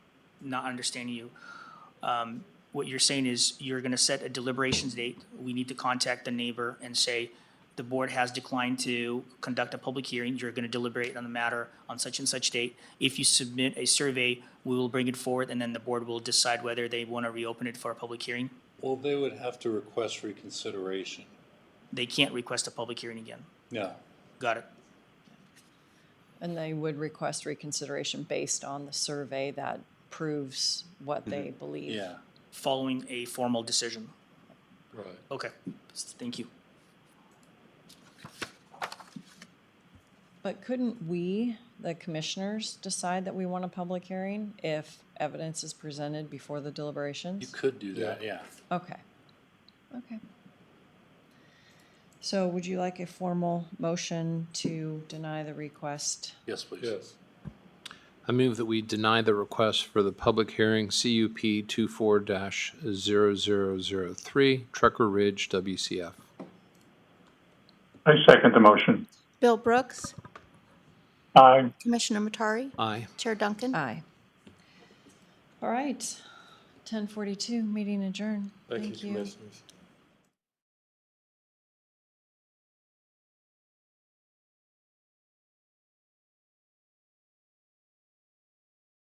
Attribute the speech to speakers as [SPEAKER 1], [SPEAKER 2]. [SPEAKER 1] not understanding you. Um, What you're saying is you're gonna set a deliberations date. We need to contact the neighbor and say, the board has declined to conduct a public hearing. You're gonna deliberate on the matter on such and such date. If you submit a survey, we will bring it forward and then the board will decide whether they wanna reopen it for a public hearing.
[SPEAKER 2] Well, they would have to request reconsideration.
[SPEAKER 1] They can't request a public hearing again.
[SPEAKER 2] No,
[SPEAKER 1] Got it?
[SPEAKER 3] And they would request reconsideration based on the survey that proves what they believe.
[SPEAKER 2] Mm-hmm. yeah,
[SPEAKER 1] Following a formal decision.
[SPEAKER 2] right.
[SPEAKER 1] Okay, thank you.
[SPEAKER 3] But couldn't we, the commissioners, decide that we want a public hearing if evidence is presented before the deliberations?
[SPEAKER 2] You could do that, yeah.
[SPEAKER 3] Okay. Okay. So would you like a formal motion to deny the request?
[SPEAKER 2] Yes, please.
[SPEAKER 4] Yes.
[SPEAKER 5] I move that we deny the request for the public hearing CUP 24-0003, Trucker Ridge WCF.
[SPEAKER 4] I second the motion.
[SPEAKER 6] Bill Brooks,
[SPEAKER 4] Aye.
[SPEAKER 6] Commissioner Matari,
[SPEAKER 5] Aye.
[SPEAKER 6] Chair Duncan.
[SPEAKER 3] Aye. All right. Ten forty-two, meeting adjourned.
[SPEAKER 4] Thank you, commissioners.